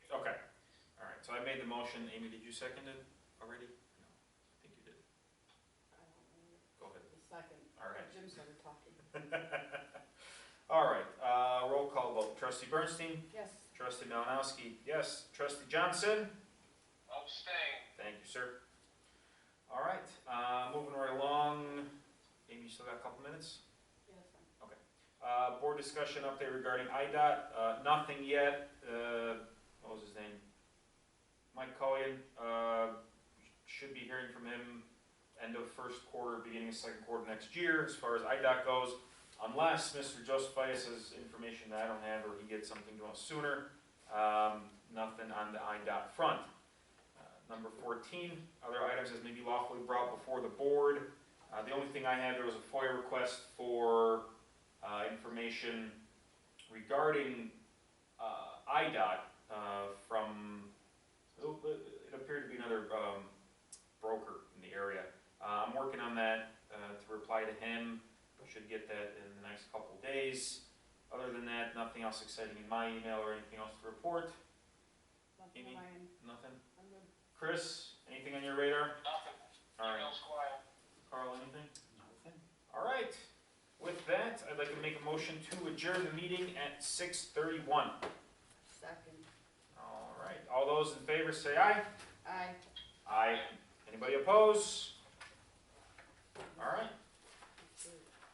made the motion, Amy, did you second it already? No, I think you did. Go ahead. Second. All right. Jim started talking. All right, uh, roll call vote. Trustee Bernstein? Yes. Trustee Malinowski? Yes. Trustee Johnson? Abstain. Thank you, sir. All right, uh, moving right along. Amy, you still got a couple minutes? Yes. Uh, board discussion update regarding IDOT, uh, nothing yet, uh, what was his name? Mike Cohen, uh, should be hearing from him end of first quarter, beginning of second quarter next year, as far as IDOT goes. Unless Mr. Josephias has information that I don't have, or he gets something to us sooner, um, nothing on the IDOT front. Uh, Number fourteen, other items as may be lawfully brought before the board. Uh, the only thing I had, there was a FOIA request for, uh, information regarding uh, IDOT uh, from, oh, uh, it appeared to be another um, broker in the area. Uh, I'm working on that uh, to reply to him. I Should get that in the next couple days. Other than that, nothing else exciting in my email or anything else to report. Nothing Amy? on my end. Nothing. I'm good. Chris, anything on your radar? Nothing. All right. Email's quiet. Carl, anything? All right. With that, I'd like to make a motion to adjourn the meeting at 6:31. Second. All right, all those in favor say aye. Aye. Aye. Anybody oppose? All right,